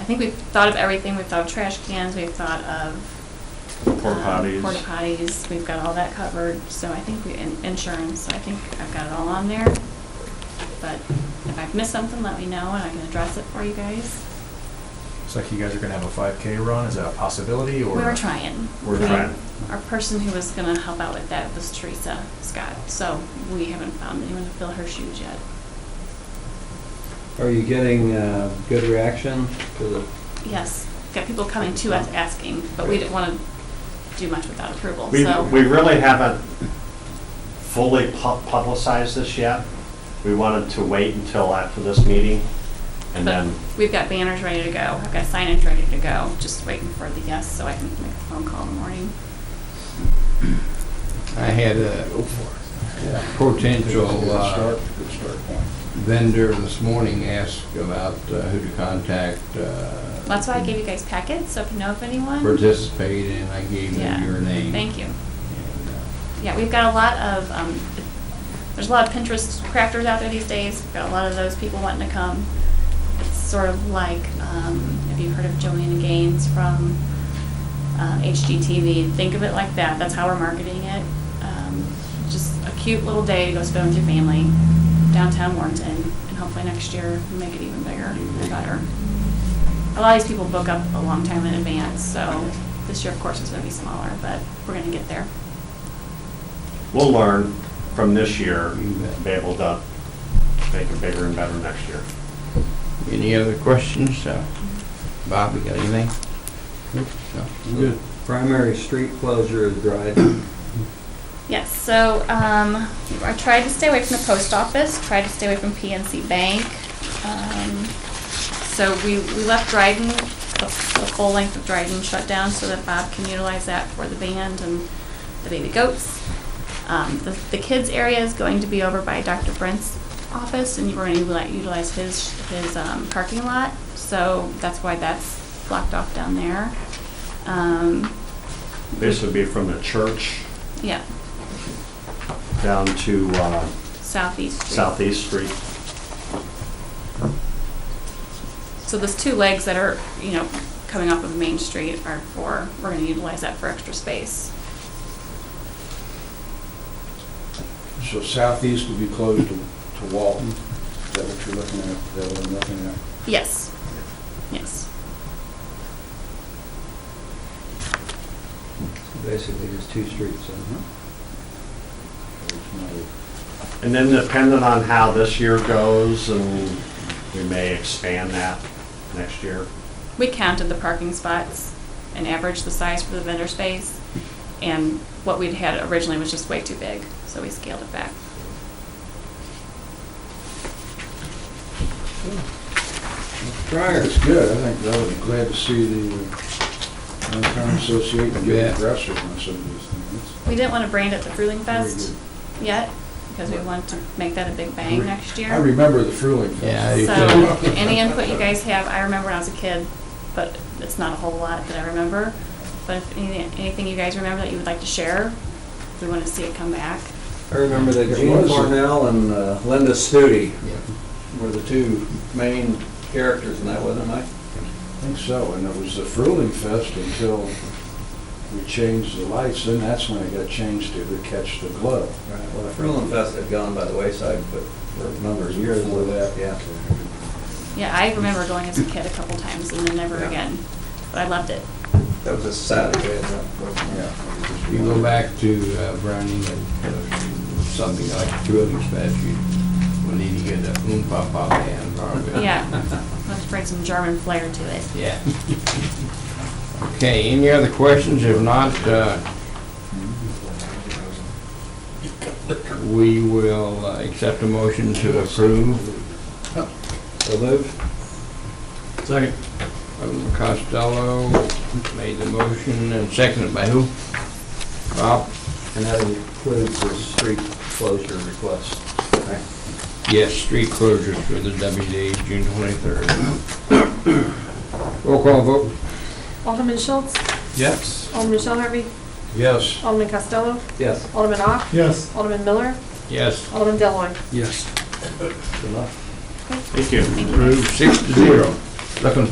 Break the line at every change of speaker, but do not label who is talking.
I think we've thought of everything. We've thought of trash cans. We've thought of
Porta
um,
potties.
Porta potties. We've got all that covered. So I think we and insurance. I think I've got it all on there. But if I've missed something, let me know and I can address it for you guys.
It's like you guys are gonna have a five K run, is that a possibility or?
we were trying.
We're
We-
trying.
Our person who was going to help out with that was Teresa Scott. So we haven't found anyone to fill her shoes yet.
Are you getting uh, good reaction to the,
Yes, got people coming to us asking, but we didn't want to do much without approval,
We,
so.
we really haven't fully pu- publicized this yet. We wanted to wait until after this meeting
but
and then,
We've got banners ready to go, I've got signage ready to go, just waiting for the yes, so I can make the phone call in the morning.
I had a potential uh, vendor this morning ask about uh, who to contact. uh,
That's why I gave you guys packets, so if you know of anyone.
Participate, and I gave
Yeah,
them your name.
Thank you.
And, uh,
Yeah, we've got a lot of, um, there's a lot of Pinterest crafters out there these days. We've got a lot of those people wanting to come. It's sort of like, um, have you heard of Joanna Gaines from uh, HGTV? Think of it like that. That's how we're marketing it. Um, Just a cute little day to go spend with your family downtown Warrenton, and hopefully next year we make it even bigger and better. A lot of these people book up a long time in advance, so this year, of course, is gonna be smaller, but we're gonna get there.
we'll learn from this year,
You bet.
be able to make it bigger and better next year.
Any other questions? Uh, Bob, you got anything? No.
the primary street closure is Dryden?
Yes, so um, I tried to stay away from the post office, tried to stay away from PNC Bank. Um, So we, we left Dryden, the the whole length of Dryden shut down so that Bob can utilize that for the band and the baby goats. Um, The, the kids area is going to be over by Dr. Brent's office and we're going to utilize his, his um, parking lot. So that's why that's blocked off down there. Um,
This would be from the church
Yeah,
down to uh,
Southeast Street.
Southeast Street.
So those two legs that are, you know, coming off of Main Street are for, we're gonna utilize that for extra space.
So southeast would be closed to to Walton, is that what you're looking at, is that what I'm looking at?
Yes, yes.
Basically, just two streets, then,
It's not a-
And then depending on how this year goes, and we may expand that next year.
We counted the parking spots and averaged the size for the vendor space. And what we'd had originally was just way too big, so we scaled it back.
Prior, it's good, I think they'll be glad to see the uh, Downtown Association get aggressive on some of these things.
We didn't wanna brand it the Fruling
Very
Fest yet, because we wanted to make that a big bang next year.
I remember the Fruling Fest.
Yeah, you
So,
too.
any input you guys have, I remember when I was a kid, but it's not a whole lot that I remember. But if any- anything you guys remember that you would like to share, we want to see it come back.
huh? I remember that
It
Gene
was.
Cornell and uh, Linda Studi
Yeah.
were the two main characters in that, wasn't it, Mike?
I think so, and it was the Fruling Fest until we changed the lights, then that's when it got changed to the Catch the Glow.
Right, well, the Fruland Fest had gone by the wayside, but for a number of years.
Before that.
Yeah.
Yeah, I remember going as a kid a couple times and then never
Yeah.
again, but I loved it.
That was a Saturday, and that wasn't,
Yeah.
If you go back to uh, Browning, uh, something like Trilling statute, we need to get a oom pop pop band probably.
Yeah, let's bring some German flair to it.
Yeah. Okay, any other questions? If not, uh, we will uh, accept a motion to approve.
So moved?
Second. Costello made the motion and seconded by who? Bob?
And that includes the street closure request. right?
Yes, street closures for the WDA, June 23rd. Roll call vote.
Alderman Schultz?
Yes.
Alderman Shell Harvey?
Yes.
Alderman Costello?
Yes.
Alderman Ock?
Yes.
Alderman Miller?
Yes.
Alderman Deloitte?
Yes.
Good luck.
Thank you.
Approved six to zero. Looking